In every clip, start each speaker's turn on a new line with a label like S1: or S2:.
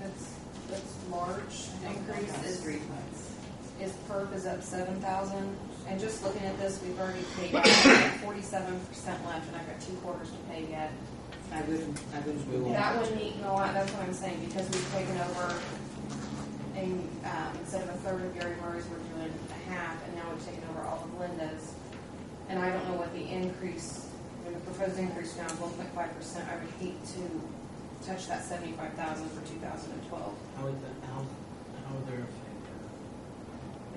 S1: that's, that's large increase is,
S2: Street
S1: is perp is up seven thousand. And just looking at this, we've already paid forty-seven percent left and I've got two quarters to pay yet.
S2: I wouldn't, I wouldn't.
S3: We won't.
S1: That one need, no, I- that's what I'm saying, because we've taken over and, um, instead of a third of Gary Murray's, we're doing a half, and now we've taken over all of Linda's. And I don't know what the increase, I mean, the proposed increase now, one point five percent, I would hate to touch that seventy-five thousand for two thousand and twelve.
S3: How would that, how, how would there affect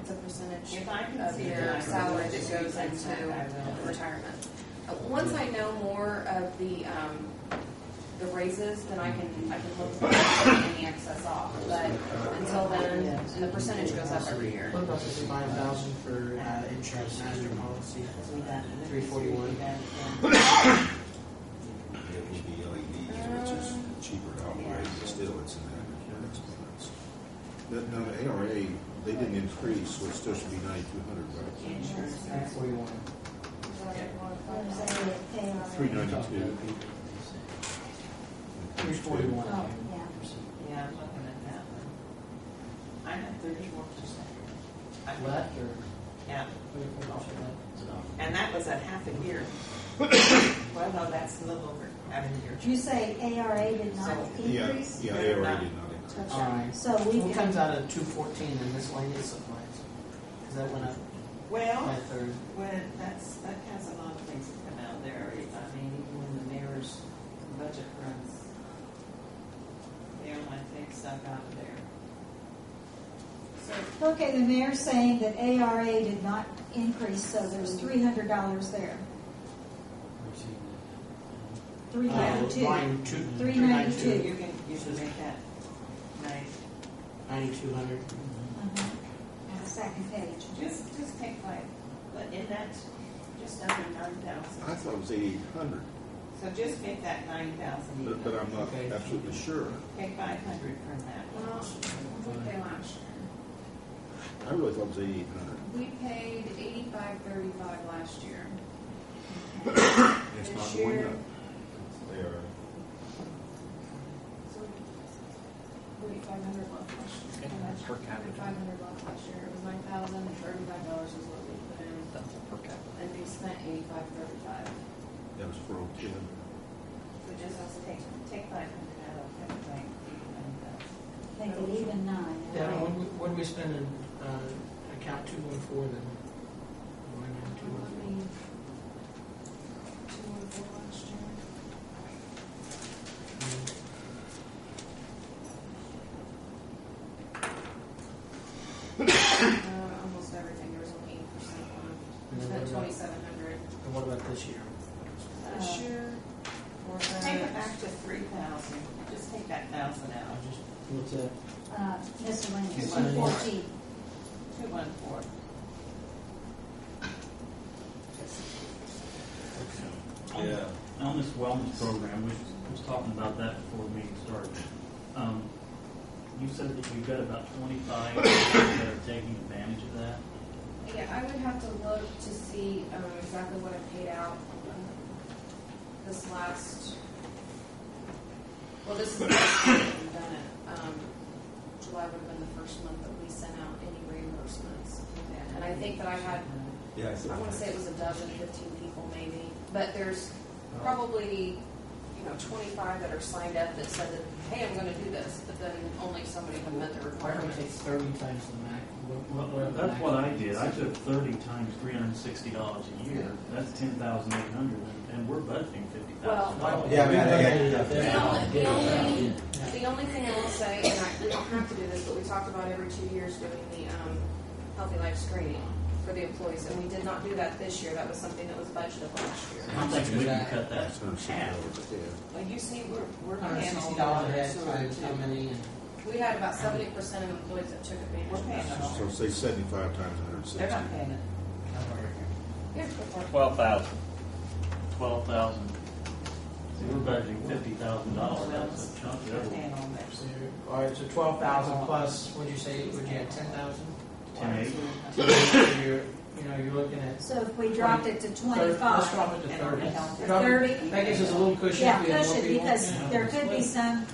S1: It's a percentage
S2: If I can
S1: of
S2: see
S1: your
S2: your
S1: salary
S2: that
S1: that goes into
S2: into.
S1: retirement. Uh, Once I know more of the, um, the raises, then I can, I can look for any excess off. But until then, and the percentage goes up every year.
S3: What about the five thousand for, uh, insurance master policy? Three forty-one.
S4: It would be LED, which is cheaper to operate, but still it's an average expense. The, no, the ARA, they didn't increase, so it still should be ninety-two hundred, right?
S3: Three forty-one.
S4: Three ninety-two.
S3: Three forty-one.
S5: Oh,
S2: Yeah, I'm looking at that one. I have thirty-four percent.
S3: Left or?
S2: Yeah,
S3: It's about-
S2: and that was at half a year. Well, no, that's a little over half a year.
S5: You say ARA did not
S2: So-
S4: Yeah,
S5: increase?
S4: yeah, ARA did not increase.
S3: All right.
S5: So we
S3: What
S5: can,
S3: comes out of two fourteen in miscellaneous supplies? Cause that went up by a
S2: Well,
S3: third.
S2: when, that's, that has a lot of things that come out there. I mean, even when the mayor's budget runs, the airline takes stuff out of there.
S5: okay, the mayor's saying that ARA did not increase, so there's three hundred dollars there. Three
S3: Uh,
S5: ninety-two.
S3: Line two.
S5: Three ninety-two.
S2: So you can, you should make that nice.
S3: Ninety-two hundred.
S5: Mhm. On the second page.
S2: Just, just take like, but in that, just under nine
S4: I
S2: thousand.
S4: thought it was eighty-eight hundred,
S2: So just make that nine thousand
S4: but, but
S2: even.
S4: I'm not
S3: Okay.
S4: absolutely sure.
S2: Take five hundred from that.
S1: Well, what did they last
S4: I really thought it was eighty-eight hundred.
S1: year? We paid eighty-five thirty-five last year.
S4: It's
S1: This
S4: not
S1: year-
S4: going up. ARA.
S1: So forty-five hundred left last year.
S6: And that's per capita.
S1: Forty-five hundred left last year. It was nine thousand and thirty-five dollars is what we put in,
S6: That's per capita.
S1: and we spent eighty-five thirty-five.
S4: That was for old ten.
S2: So just also take, take five hundred out of everything. and,
S5: They could even nine.
S3: Yeah,
S5: right?
S3: what do we, what do we spend in, uh, account two one four then? Line item
S1: Two
S3: 214.
S1: and four last year.
S3: Mm-hmm.
S1: Uh, almost everything, there was only eight percent
S3: And
S1: on,
S3: then what
S1: spent
S3: about-
S1: twenty-seven hundred
S3: And what about this year?
S1: this
S2: Uh,
S1: year. Or
S2: uh, Take it back to three thousand, just take that thousand
S3: I'll
S2: out,
S3: just, what's that?
S5: Uh, miscellaneous, two
S3: Miscellaneous.
S5: fourteen.
S2: two one four.
S7: Yeah. On this wellness program, we was talking about that before the meeting started. Um, You said that you've got about twenty-five that are taking advantage of that.
S1: Yeah, I would have to look to see um, exactly what I paid out um, this last, well, this is the first time that we've done it. Um, July would have been the first month that we sent out any reimbursements. And I think that I had,
S4: Yeah,
S1: I want to say it was a dozen, fifteen people maybe, but there's probably, you know, twenty-five that are signed up that said that, hey, I'm going to do this, but then only somebody had met the
S3: Why don't we
S1: requirement.
S3: take thirty times the max? what- what-
S7: Well,
S3: the
S7: that's
S3: max-
S7: what I did. I took thirty times three hundred and sixty dollars a year. That's ten thousand eight hundred, and we're budgeting fifty thousand
S3: Why
S7: dollars.
S3: don't Oh, we-
S1: The only, the only, the only thing I will say, and I, we don't have to do this, but we talked about every two years doing the, um, healthy life screening for the employees, and we did not do that this year, that was something that was budgeted last year.
S7: I'm thinking we can cut that
S4: That's
S7: in
S4: hundred
S7: half.
S4: yeah.
S2: Well, you see, we're, we're
S3: Hundred
S2: paying
S3: sixty
S2: all
S3: dollars
S2: the
S3: a head
S2: sewer
S3: times how
S2: too.
S3: many and
S1: We had about seventy percent of employees that took advantage
S2: We're
S1: of
S2: paying
S1: that.
S2: it all.
S4: So say seventy-five times hundred
S2: They're
S4: and sixty.
S2: not paying it.
S1: Here's the part.
S6: Twelve thousand.
S7: Twelve thousand. We're budgeting fifty thousand dollars. That's a chunk.
S2: They're
S7: That's
S2: paying all that.
S3: so, all right, so twelve thousand plus, what'd you say, would you have ten thousand?
S7: ten eight.
S3: You're, you know, you're looking at.
S5: So if we dropped it to
S3: thir- Let's
S5: twenty-five,
S3: drop it to
S2: And
S3: thirty.
S2: on the health-
S3: Drop it-
S5: thirty,
S3: That gives us a little cushion.
S5: yeah,
S3: if we have more
S5: push it,
S3: people.
S5: because
S3: Yeah.
S5: there could be some